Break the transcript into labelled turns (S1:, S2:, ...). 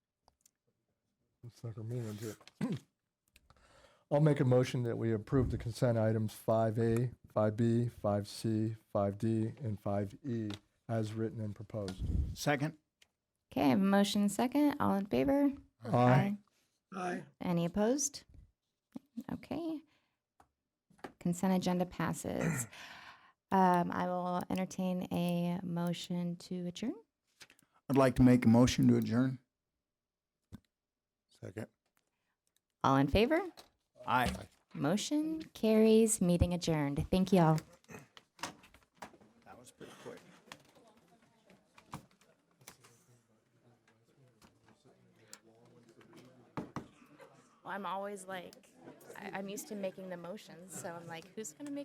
S1: It's not our meeting on here. I'll make a motion that we approve the consent items 5A, 5B, 5C, 5D, and 5E as written and proposed.
S2: Second?
S3: Okay, I have a motion and second. All in favor?
S1: Aye.
S4: Aye.
S3: Any opposed? Okay. Consent agenda passes. Um, I will entertain a motion to adjourn.
S2: I'd like to make a motion to adjourn.
S5: Second.
S3: All in favor?
S2: Aye.
S3: Motion carries, meeting adjourned. Thank you all.
S2: That was pretty quick.
S3: Well, I'm always like, I, I'm used to making the motions, so I'm like, who's gonna make